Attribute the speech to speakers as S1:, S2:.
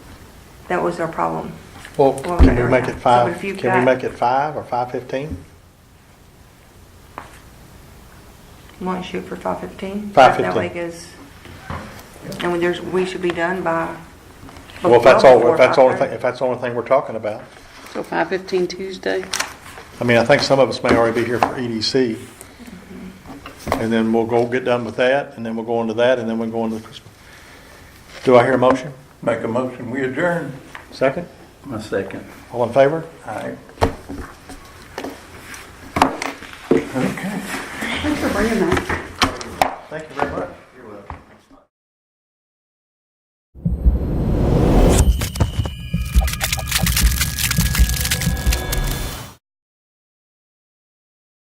S1: That was our problem.
S2: Well,
S1: Well,
S2: can we
S1: okay,
S2: make
S1: right.
S2: it five,
S1: So if you've
S2: can we
S1: got-
S2: make it five or five fifteen?
S1: Want to shoot for five fifteen?
S2: 5:15.
S1: That way goes, and when there's, we should be done by.
S2: Well, if that's all,
S1: before
S2: if that's the only
S1: 5:30.
S2: thing, if that's the only thing we're talking about.
S3: So 5:15 Tuesday?
S2: I mean, I think some of us may already be here for EDC. And then we'll go get done with that, and then we'll go into that, and then we'll go into the Christmas. Do I hear a motion?
S4: Make a motion, we adjourn.
S2: Second?
S4: My second.
S2: All in favor?
S4: Aye.
S3: Thanks for bringing that.
S2: Thank you very much.